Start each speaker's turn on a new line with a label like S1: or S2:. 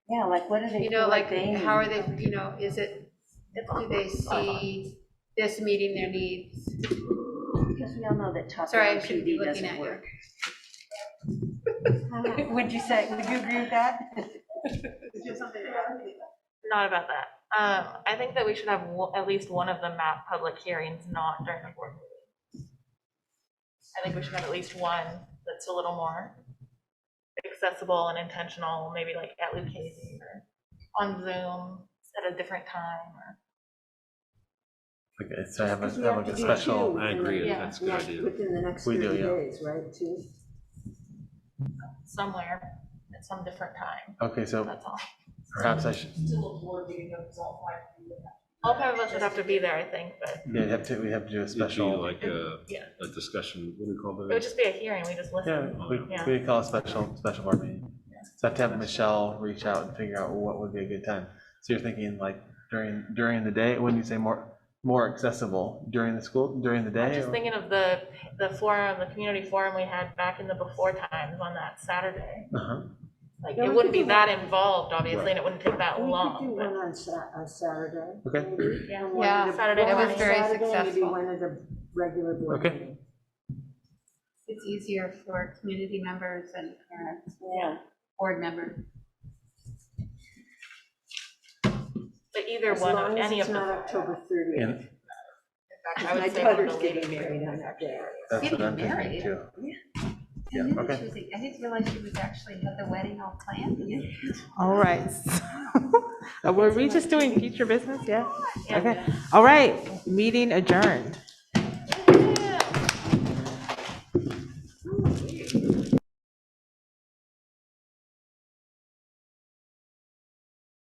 S1: Yeah, like what do they
S2: You
S1: feel
S2: know,
S1: like
S2: like,
S1: they need?
S2: how are they, you know, is it, do they see this meeting their needs?
S1: Because we all know that top
S2: Sorry, I
S1: down
S2: shouldn't be
S1: PD
S2: looking
S1: doesn't
S2: at you.
S1: work. Would you say, would you agree with that?
S3: Not about that. Um, I think that we should have wo- at least one of the map public hearings, not during the board meeting. I think we should have at least one that's a little more accessible and intentional, maybe like at Lucchese or on Zoom at a different time or.
S4: Okay, so I have a,
S5: Because we
S4: have
S5: have
S4: like a
S5: to do
S4: special,
S5: two
S6: I
S5: in the
S6: agree,
S3: Yeah.
S6: that's a good
S5: next-
S6: idea.
S5: Within the next
S4: We do,
S5: 30
S4: yeah.
S5: days, right, two?
S3: somewhere at some different time,
S4: okay, so
S3: that's all.
S4: perhaps I should,
S3: All five of us would have to be there, I think, but
S4: yeah, we have to, we have to do a
S6: It'd be
S4: special.
S6: like a,
S3: Yeah.
S6: a discussion, what do we call
S3: it would
S6: those?
S3: just be a hearing, we just
S4: Yeah,
S3: listen.
S4: we,
S3: Yeah.
S4: we call a special, special board meeting. So I have to have Michelle reach out and figure out what would be a good time. So you're thinking like during, during the day, when you say more, more accessible, during the school, during the
S3: I'm
S4: day?
S3: just
S4: or-
S3: thinking of the, the forum, the community forum we had back in the before times on that Saturday.
S4: Uh-huh.
S3: Like,
S5: Yeah, we
S3: it wouldn't
S5: could
S3: be
S5: do
S3: that involved, obviously,
S4: Right.
S3: and it wouldn't take that
S5: We could do
S3: long,
S5: one
S3: but
S5: on Sa- on Saturday.
S4: Okay.
S5: maybe,
S3: Yeah.
S5: and one
S2: Yeah,
S5: of the-
S3: Saturday
S5: one
S3: night
S5: on
S3: was
S2: very
S5: Saturday, Maybe
S2: successful.
S5: one of the regular board
S4: Okay.
S5: meetings.
S2: It's easier for community members and parents,
S1: Yeah.
S2: board members.
S3: but either
S5: As
S3: one of,
S5: long as
S3: any of
S5: it's
S3: the.
S5: not
S3: five.
S5: October 30th.
S4: And
S3: In fact, I
S5: My
S3: would say one of
S5: daughter's
S3: the
S5: getting
S3: later.
S5: married on that day.
S4: that's what
S2: Getting
S4: I'm thinking
S2: married.
S4: too. Yeah,
S2: I
S4: okay.
S2: didn't choose it. I didn't realize she was actually had the wedding all planned.
S7: All right. Were we just doing future business? Yeah?
S3: Yeah.
S7: Okay. All right, meeting adjourned.